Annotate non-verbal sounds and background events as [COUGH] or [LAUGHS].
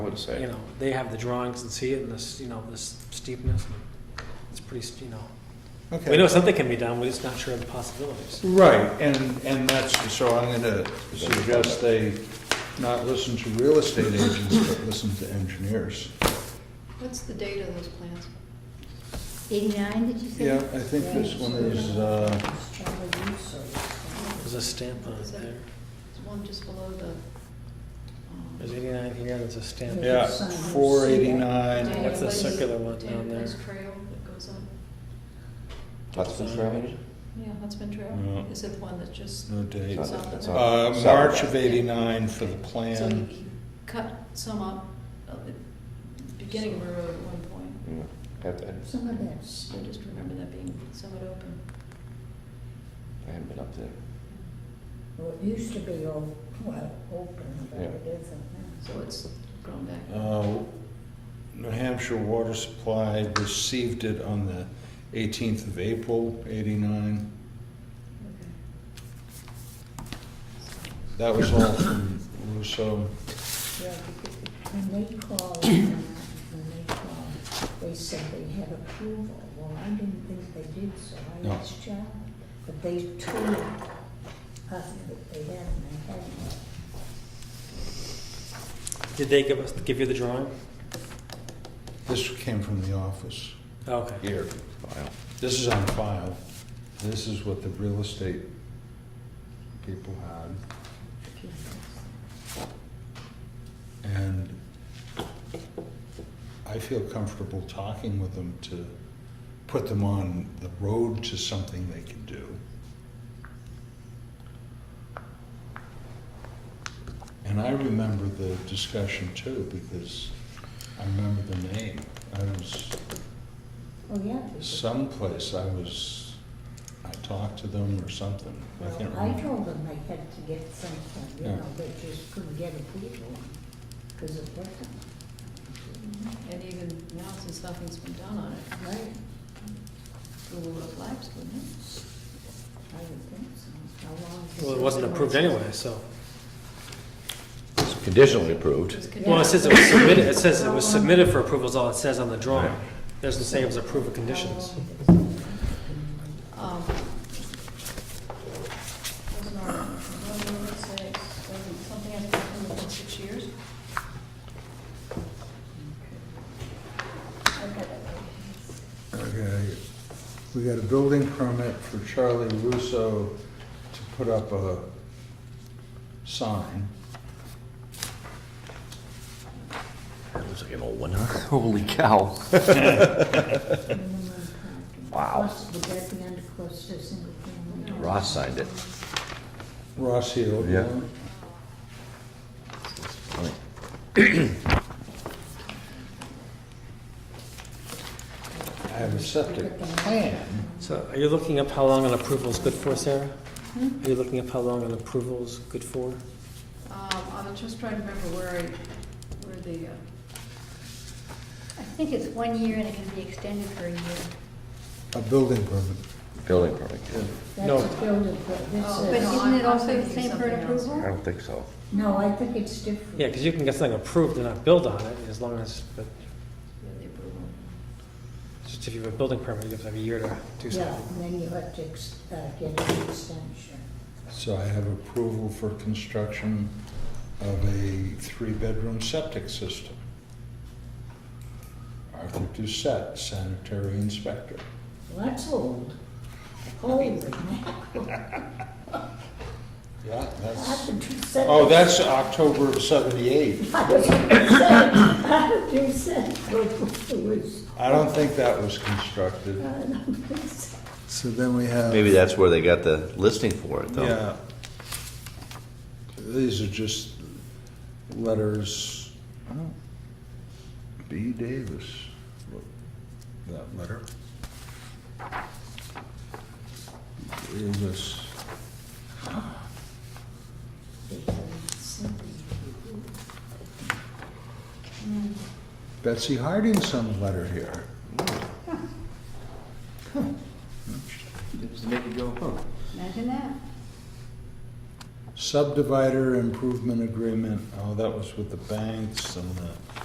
would say. You know, they have the drawings and see it and this, you know, this steepness. and It's pretty, st- you know, we know Okay. something can be done, we're just not sure of the possibilities. Right, and, and that's, so I'm gonna suggest they not listen to real estate agents, but listen to engineers. What's the date of those plans? 89, did you say? Yeah, I think this one is, uh, There's a stamp on it there. There's one just below the, There's um, 89 here, there's a stamp. yeah, four eighty-nine. Daniel That's the Place- circular one down Daniel Place there. Trail that goes up. Hudson Trail? Yeah, Huntsman Trail. No. Is it the one that just? No date. It's on- it's on- Uh, March of eighty-nine for the So he plan. he cut some up, uh, at the beginning of a road at one point. Yeah, Have to- I Some of that I just remember that being somewhat open. haven't been up there. well, it used to be all, well, open, but Yeah. it isn't So it's grown back. Uh, New Hampshire Water Supply received it on the eighteenth of April, eighty-nine. That was all from Russo. now. Yeah, because When they called, when they called, they said they had approval. Well, I didn't think they did, so No. I asked John. But they told us that they had, and they hadn't. Did they give us, give you the drawing? This came from the office Okay. here. This is on file. This is what the real estate people had. And I feel comfortable talking with them to put them on the road to something they can do. And I remember the discussion too, because I remember the name. I was Oh, yeah. because- someplace, I was, I talked to them or something. I Well, can't I remember. told them they had to get something, you Yeah. know, they just couldn't get approval because it wasn't. And even now, since nothing's been done on it, Right. it will have lapsed, wouldn't it? I would think so. How long? has Well, it wasn't approved anyway, so. It's Conditionally approved. It's Well, it conditional. says it was submitted, it says it was submitted for approval is all it says on the drawing. Doesn't say it was approved with conditions. How long has it- Um, Wasn't our, wasn't it say, wasn't something has to happen within six years? Okay, we got a building permit for Charlie Russo to put up a sign. That looks like an old one, huh? Holy cow. Minimum parking. Wow. Cluster- Would that be under cluster single family? Ross signed it. Ross Hill. Yeah. one. Funny. I have a septic plan. So are you looking up how long an approval is good for, Sarah? Are you looking up how long an approval is good for? Um, I was just trying to remember where I, where the, uh, I think it's one year and it can be extended for a year. A building permit. Building permit. yeah. No. That's a building, but this Oh, But no, is, isn't I'm- it I'm also the thinking same for something an else. I approval? don't think so. no, I think it's different. Yeah, because you can get something approved and not build on it, as long as, but yeah, the approval. just if you have a building permit, you have to have a year to do Yeah, something. and then you have to ex- uh, get an extension. So I have approval for construction of a three-bedroom septic system. Arthur Doucette, sanitary inspector. Well, that's old. Holy Yeah, that's, After two oh, seconds. that's October of seventy-eight. After two seconds, it was, uh, I don't think that was [LAUGHS] constructed. I don't think so. So then we have. Maybe that's where they got the listing for it, though. Yeah. These are just letters. B. Davis. wrote That letter. Davis. Betsy Harding some letter here. Just to make it go, huh? Imagine that. Subdivider improvement agreement, oh, that was with the banks and the.